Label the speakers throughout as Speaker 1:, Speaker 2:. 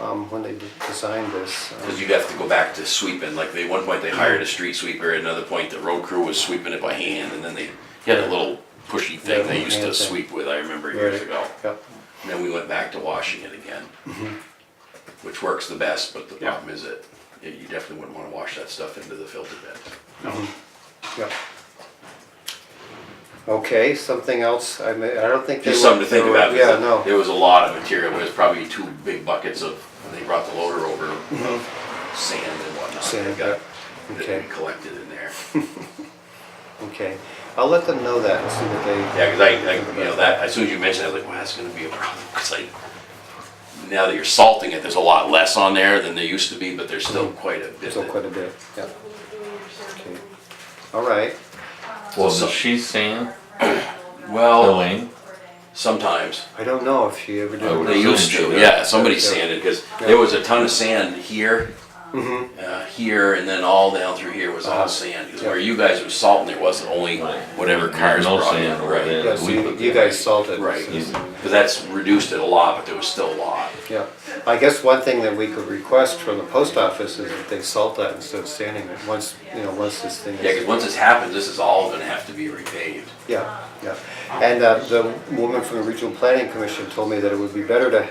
Speaker 1: um, when they designed this. um,
Speaker 2: Because you'd have to go back to sweeping, like they, one point they hired a street sweeper, at another point the road crew was sweeping it by hand, and then they had a little pushy
Speaker 1: Yeah,
Speaker 2: thing they used to
Speaker 1: hand thing.
Speaker 2: sweep with, I remember years
Speaker 1: right,
Speaker 2: ago.
Speaker 1: Yep,
Speaker 2: And then we went back to washing it again,
Speaker 1: Mm-hmm.
Speaker 2: which works the best, but the
Speaker 3: Yeah.
Speaker 2: problem is that yeah, you definitely wouldn't wanna wash that stuff into the filter bed.
Speaker 3: No.
Speaker 1: yep. Okay, something else, I may, I don't think. they
Speaker 2: Just something
Speaker 1: went
Speaker 2: to think
Speaker 1: through it.
Speaker 2: about,
Speaker 1: Yeah,
Speaker 2: because
Speaker 1: no,
Speaker 2: there was a lot of material, there was probably two big buckets of, they brought the loader over, of sand and
Speaker 1: Mm-hmm.
Speaker 2: whatnot.
Speaker 1: Sand,
Speaker 2: that got-
Speaker 1: yeah.
Speaker 2: That
Speaker 1: Okay.
Speaker 2: we collected in there.
Speaker 1: okay. I'll let them know that, and see what they.
Speaker 2: Yeah, because I, I, you know, that, as soon as you mentioned, it, I was like, wow, that's gonna be a problem, because I, now that you're salting it, there's a lot less on there than there used to be, but there's still quite a bit.
Speaker 1: Still
Speaker 2: that-
Speaker 1: quite a bit, yeah. Okay. All right,
Speaker 4: Well,
Speaker 2: So- Oh.
Speaker 4: does she sing,
Speaker 2: Well,
Speaker 4: Elaine?
Speaker 2: sometimes,
Speaker 1: I don't know if she ever did.
Speaker 4: I would
Speaker 2: they
Speaker 4: assume
Speaker 2: used
Speaker 4: she
Speaker 2: to,
Speaker 4: does.
Speaker 2: yeah, somebody
Speaker 1: Yeah.
Speaker 2: sanded, because
Speaker 1: Yeah.
Speaker 2: there was a ton of sand here,
Speaker 1: Mhm.
Speaker 2: uh, here, and then all down through here was
Speaker 1: Uh-huh.
Speaker 2: all sand. 'Cause
Speaker 1: Yeah.
Speaker 2: Where you guys were salting, there wasn't only whatever cars
Speaker 4: No
Speaker 2: brought in,
Speaker 4: sand over
Speaker 2: right?
Speaker 4: there.
Speaker 1: Yeah, so
Speaker 4: We
Speaker 1: you
Speaker 4: put
Speaker 1: you
Speaker 4: that.
Speaker 1: guys salted.
Speaker 2: Right.
Speaker 1: so-
Speaker 4: Yeah.
Speaker 2: Because that's reduced it a lot, but there was still a lot.
Speaker 1: Yeah, I guess one thing that we could request from the post office is that they salt that instead of sanding it, once, you know, once this thing is.
Speaker 2: Yeah, because once this happens, this is all gonna have to be repaved.
Speaker 1: Yeah, yeah. And uh, the woman from the Regional Planning Commission told me that it would be better to,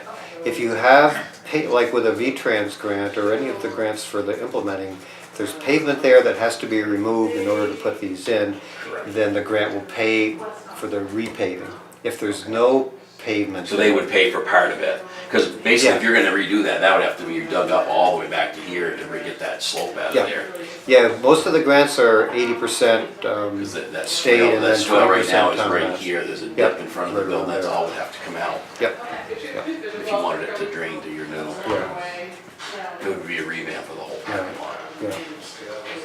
Speaker 1: if you have, pa- like with a V-Trans grant or any of the grants for the implementing, if there's pavement there that has to be removed in order to put these in, then the grant will pay for the repaving. If there's no pavement.
Speaker 2: So they would pay for part of it. Because basically, if
Speaker 1: Yeah.
Speaker 2: you're gonna redo that, that would have to be dug up all the way back to here to re- get that slope out
Speaker 1: Yeah.
Speaker 2: of there.
Speaker 1: Yeah, most of the grants are eighty percent, um,
Speaker 2: Because that, that
Speaker 1: Stayed
Speaker 2: swell,
Speaker 1: and
Speaker 2: that
Speaker 1: then
Speaker 2: swell right now
Speaker 1: 20%
Speaker 2: is right
Speaker 1: compost.
Speaker 2: here, there's a
Speaker 1: Yeah,
Speaker 2: dip in front of the
Speaker 1: right
Speaker 2: building,
Speaker 1: around
Speaker 2: that's
Speaker 1: there.
Speaker 2: all would have to come out.
Speaker 1: yep, yep,
Speaker 2: If you wanted it to drain to your new,
Speaker 1: yeah,
Speaker 2: it would be a revamp of the whole parking lot.
Speaker 1: yeah.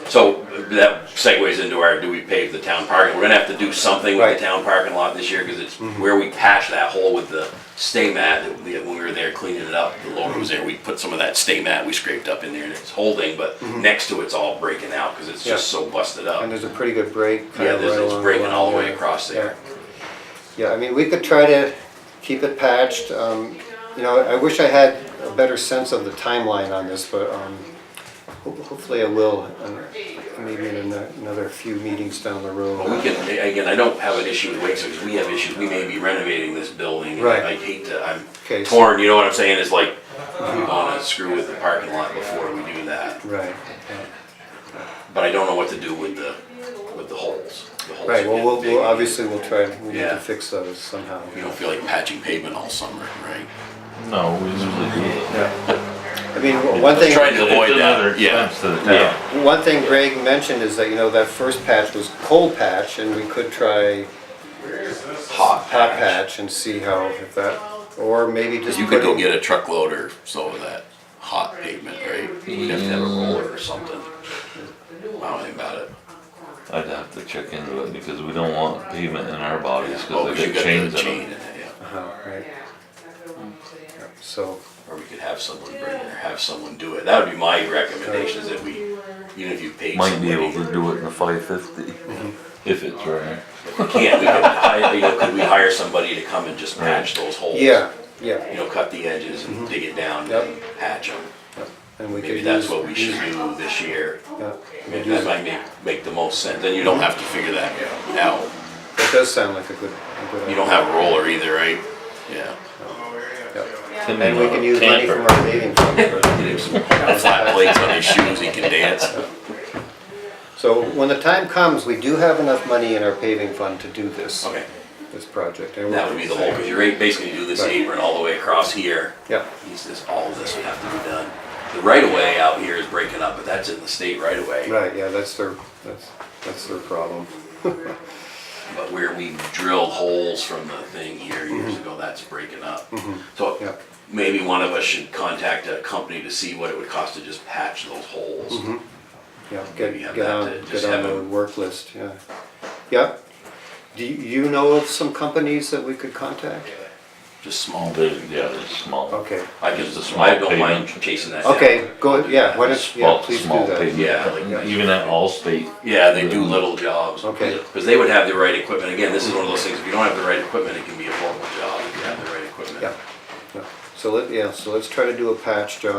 Speaker 2: So that segues into our, do we pave the town parking? We're gonna have to do something with
Speaker 1: Right. Mm-hmm.
Speaker 2: the town parking lot this year, because it's where we patched that hole with the stay mat, that we- when we were there cleaning it up, the loader was there, we put some of that stay mat we scraped up in there, and it's holding, but next to it's all breaking out, because it's just
Speaker 1: Mm-hmm. Yeah.
Speaker 2: so busted up.
Speaker 1: And there's a pretty good break. kind
Speaker 2: Yeah,
Speaker 1: of
Speaker 2: there's-
Speaker 1: right
Speaker 2: it's
Speaker 1: along
Speaker 2: breaking all the
Speaker 1: line
Speaker 2: way across there.
Speaker 1: Yeah, Yeah, I mean, we could try to keep it patched, um, you know, I wish I had a better sense of the timeline on this, but, um, ho- hopefully I will, um, maybe in ano- another few meetings down the
Speaker 2: But we
Speaker 1: road.
Speaker 2: can, again, I don't have an issue with Wake's, because we have issues, we may be renovating this building. and
Speaker 1: Right.
Speaker 2: I hate to, I'm
Speaker 1: Okay, so-
Speaker 2: torn, you know what I'm saying, it's like, we
Speaker 1: Mm-hmm.
Speaker 2: wanna screw with the parking lot before we do that.
Speaker 1: Right, yeah.
Speaker 2: But I don't know what to do with the, with the holes. The holes
Speaker 1: right,
Speaker 2: are
Speaker 1: well, we'll,
Speaker 2: getting
Speaker 1: we'll-
Speaker 2: big.
Speaker 1: obviously we'll try, we need
Speaker 2: Yeah.
Speaker 1: to fix those somehow.
Speaker 2: You don't feel like patching pavement all summer, right?
Speaker 4: No, we usually do.
Speaker 1: Yeah. I mean, w- one thing.
Speaker 2: Trying to avoid
Speaker 4: It's
Speaker 2: that,
Speaker 4: another
Speaker 2: yeah.
Speaker 4: expense to the
Speaker 2: Yeah.
Speaker 4: town.
Speaker 1: One thing Greg mentioned is that, you know, that first patch was cold patch and we could try
Speaker 2: Hot
Speaker 1: hot patch and see how, if that, or maybe just.
Speaker 2: You could go
Speaker 1: putting-
Speaker 2: get a truck loader, so of that hot pavement, right? You'd have to have a roller or something. I don't think about it.
Speaker 4: I'd have to check into it because we don't want pavement in our bodies
Speaker 2: Oh,
Speaker 4: because
Speaker 2: 'cause
Speaker 4: they
Speaker 2: you
Speaker 4: got
Speaker 2: got
Speaker 4: chains
Speaker 2: the chain
Speaker 4: in them.
Speaker 2: in it, yeah.
Speaker 1: Uh-huh, right, so,
Speaker 2: Or we could have someone bring it, or have someone do it. That would be my recommendation, is that we, even if you paid
Speaker 4: Might
Speaker 2: somebody.
Speaker 4: be able to do it in a five fifty,
Speaker 2: Mm-hmm.
Speaker 4: if it's right.
Speaker 2: If we can't, we could hire, you know, could we hire somebody to come and just patch those holes?
Speaker 1: yeah,
Speaker 2: You
Speaker 1: yeah,
Speaker 2: know, cut the edges and dig it down
Speaker 1: Yep.
Speaker 2: and patch them.
Speaker 1: and we could
Speaker 2: Maybe
Speaker 1: use.
Speaker 2: that's what we should do this year.
Speaker 1: yeah, we could
Speaker 2: Maybe
Speaker 1: use
Speaker 2: that
Speaker 1: it.
Speaker 2: might make, make the most sense, then you don't have to figure that out.
Speaker 1: It does sound like a good, a good.
Speaker 2: You don't have a roller either, right? Yeah.
Speaker 4: Tim
Speaker 1: And we
Speaker 4: bought a
Speaker 1: can use money
Speaker 4: camper.
Speaker 1: from our paving fund.
Speaker 2: Get him some Flat plates on his shoes, he can dance.
Speaker 1: So when the time comes, we do have enough money in our paving fund to do this,
Speaker 2: Okay,
Speaker 1: this project. and we're-
Speaker 2: that would be the whole, because you're basically do this apron all the way across here.
Speaker 1: Yeah,
Speaker 2: He's this, all this would have to be done. The right of way out here is breaking up, but that's in the state right of way.
Speaker 1: right, yeah, that's their, that's, that's their problem.
Speaker 2: But where we drilled holes from the thing here years ago, that's breaking up.
Speaker 1: Mm-hmm. Yeah.
Speaker 2: So maybe one of us should contact a company to see what it would cost to just patch those holes.
Speaker 4: Mm-hmm.
Speaker 1: Yeah, Mm-hmm.
Speaker 2: Maybe
Speaker 1: get,
Speaker 2: have
Speaker 1: get
Speaker 2: that
Speaker 1: on,
Speaker 2: to
Speaker 1: get
Speaker 2: just
Speaker 1: on
Speaker 2: have
Speaker 1: the
Speaker 2: a-
Speaker 1: work list, yeah. Yeah, do you you know of some companies that we could contact?
Speaker 2: Just small.
Speaker 4: They're, yeah, they're small.
Speaker 1: Okay,
Speaker 2: I can,
Speaker 4: Just a small
Speaker 2: I don't mind
Speaker 4: pavement.
Speaker 2: chasing that down.
Speaker 1: okay, go, yeah, why don't, yeah,
Speaker 4: Small,
Speaker 1: please do
Speaker 4: small
Speaker 1: that.
Speaker 4: pavement.
Speaker 2: Yeah, like-
Speaker 4: Even at Allstate.
Speaker 2: Yeah, they do little jobs.
Speaker 1: Okay.
Speaker 2: Because they would have the right equipment. Again, this is one of those things, if you don't have the right equipment, it can be a horrible job if you have the right equipment.
Speaker 1: Yeah, yeah. So let, yeah, so let's try to do a patch job